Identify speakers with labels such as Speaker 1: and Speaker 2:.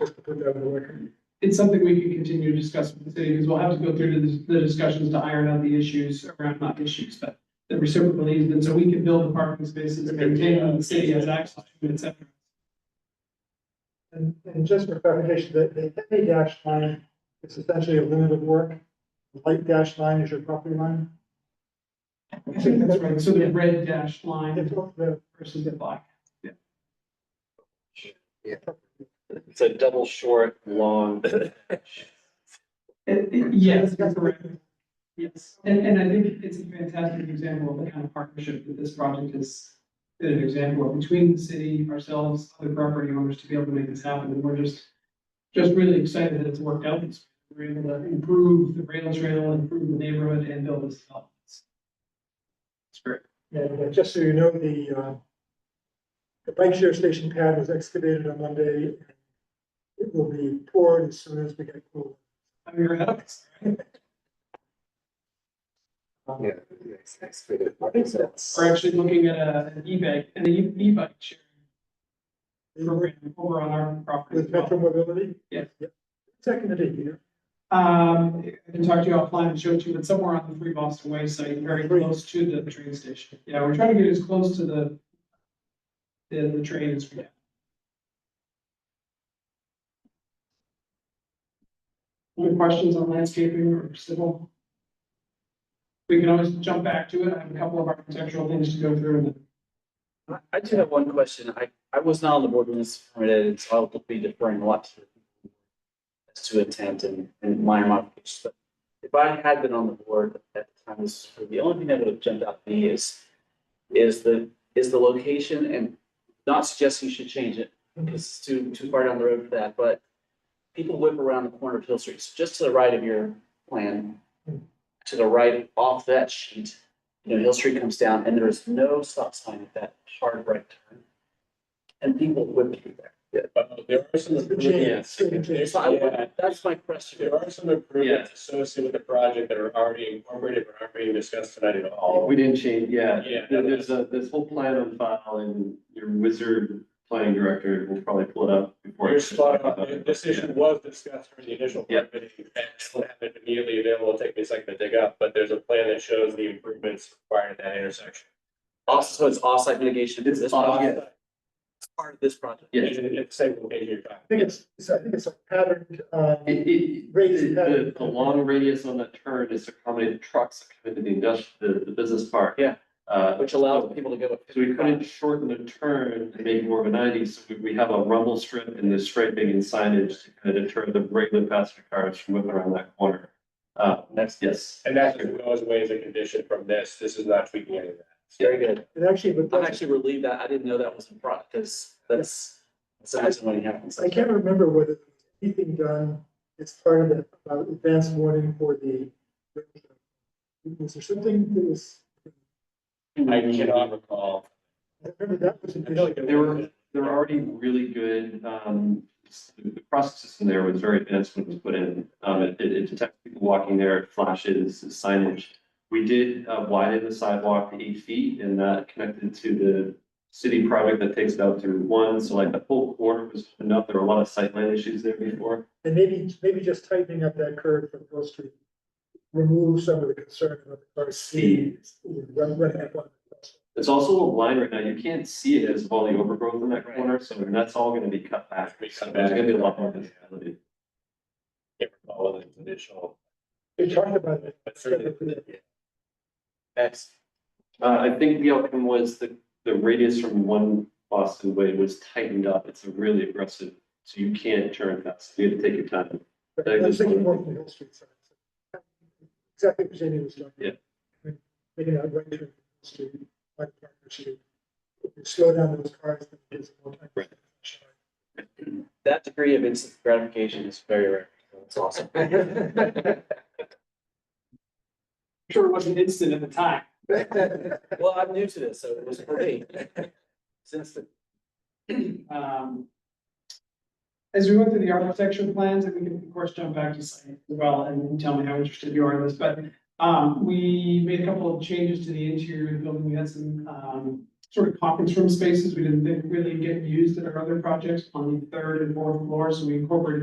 Speaker 1: just to put that on the record.
Speaker 2: It's something we can continue to discuss with the city, because we'll have to go through the, the discussions to iron out the issues, around not issues, but the reciprocal easement, so we can build the parking spaces, maintain them, the city has access, to it, et cetera.
Speaker 1: And, and just for clarification, the, the heavy dash line is essentially a limit of work. The Light dash line is your property line.
Speaker 2: I think that's right, so the red dashed
Speaker 1: It's
Speaker 2: line
Speaker 1: all the-
Speaker 2: versus the black.
Speaker 3: It's a double short, long.
Speaker 2: It- it- yes, that's correct. Yes, and, and I think it's a fantastic example of the kind of partnership that this project is, is an example of between the city, ourselves, other property owners to be able to make this happen, and we're just, just really excited that it's worked out. It's- We're able to improve the rail trail, improve the neighborhood, and build this up. It's it's great.
Speaker 1: And uh, just so you know, the, uh, the bike share station pad was excavated on Monday. It will be poured as soon as we get cool.
Speaker 2: I'm your host.
Speaker 1: Um,
Speaker 3: Yeah.
Speaker 2: We're actually looking at a, an e-bike, an e- e-bike sharing program over on our property. as
Speaker 1: With
Speaker 2: well.
Speaker 1: Metro Mobility?
Speaker 2: Yes.
Speaker 1: Second to you
Speaker 2: Um, I can talk to you offline and show it to you, but somewhere on the Free Boston Way site, very close to the train station. Yeah, we're trying to get as close to the the, the train as we can. Any questions on landscaping or civil? We can always jump back to it. I have a couple of architectural things to go through and then
Speaker 4: I- I do have one question. I, I was not on the board when this was permitted, so I'll be deferring a lot to as to intent and, and minor modifications, but if I had been on the board at the time, this, was approved, the only thing that would have jumped out to me is, is the, is the location and not suggesting you should change it, because it's too, too far down the road for that, but people whip around the corner of Hill Street, so just to the right of your plan, to the right off that sheet, you know, Hill Street comes down and there is no stop sign at that hard right turn. And people whip through there.
Speaker 5: Uh, There are some improvements,
Speaker 1: Yes.
Speaker 4: So I, that's my question.
Speaker 5: there are some improvements associated with the project that are already incorporated, but aren't being discussed tonight at all.
Speaker 6: We didn't change, yeah.
Speaker 5: Yeah.
Speaker 6: There- There's a, this whole plan on file and your wizard planning director will probably pull it up before.
Speaker 5: Your spot on, this issue was discussed during the initial
Speaker 6: Yeah.
Speaker 5: permitting, and it's not been immediately available, it'll take me a second to dig up, but there's a plan that shows the improvements required at that intersection.
Speaker 4: Also, so it's offsite mitigation for
Speaker 6: It's
Speaker 4: this
Speaker 6: off-
Speaker 4: project,
Speaker 6: Oh, yeah.
Speaker 4: it's part of this project.
Speaker 6: Yeah.
Speaker 5: Even if it's the same location you're talking.
Speaker 1: I think it's, it's- I think it's a patterned, um,
Speaker 6: It, it, the, the long radius on the turn is to accommodate trucks coming to the industrial, the, the business park.
Speaker 4: Yeah.
Speaker 6: Uh,
Speaker 4: Which allows people to go.
Speaker 6: so we couldn't shorten the turn and make it more of a ninety, so we, we have a rumble strip and the striping and signage to kind of deter the regular passenger cars from whipping around that corner. Uh, that's, yes.
Speaker 5: And that's what goes away as a condition from this, this is not tweaking any of that.
Speaker 4: Very good.
Speaker 1: it actually, but
Speaker 4: I'm
Speaker 1: that's-
Speaker 4: actually relieved that I didn't know that was in product, because that's, that's the reason when it happens.
Speaker 1: I can't remember whether anything done, it's part of the, about advance warning for the. Was there something that was,
Speaker 5: I cannot recall.
Speaker 1: I remember that was an
Speaker 5: I feel
Speaker 1: issue.
Speaker 5: like it
Speaker 6: There
Speaker 5: was-
Speaker 6: were, there were already really good, um, s- the process system there was very advanced when it was put in. Um, it, it it detects people walking there, it flashes signage. We did uh, widen the sidewalk to eight feet and that connected to the city project that takes it out to one. So like the whole corner was opened up. There were a lot of sightline issues there before.
Speaker 1: And maybe, maybe just tightening up that curve from Hill Street. Remove some of the concern about the car speed. Run, run at one.
Speaker 6: There's also a line right now. You can't see it because of all the overgrowth in that
Speaker 4: Right.
Speaker 6: corner. So that's all gonna be cut back.
Speaker 5: Be
Speaker 6: So
Speaker 5: cut
Speaker 6: There's
Speaker 5: back.
Speaker 6: gonna be a lot more visibility.
Speaker 5: Can't recall the initial.
Speaker 1: They talked about it.
Speaker 5: But certainly,
Speaker 4: That's,
Speaker 6: Uh, I think the outcome was the, the radius from one Boston Way was tightened up. It's a really aggressive, so you can't turn fast. You have to take your time.
Speaker 1: But I was thinking more from the Hill Street side. so. Exactly what Jamie was talking about. Yeah. Making that right through Hill Street, like Parker Street. If you slow down those cars, then there's more time.
Speaker 6: Right.
Speaker 4: that degree of instant gratification is very rare. It's awesome.
Speaker 2: I'm sure it wasn't instant at the time.
Speaker 4: Well, I'm new to this, so it was great. Since the,
Speaker 2: Um, As we went through the architecture plans, and we can of course jump back to site as well and tell me how interested you are in this, but um, we made a couple of changes to the interior of the building. We had some um sort of conference room spaces we didn't think really get used in our other projects on the third and fourth floors, so we incorporated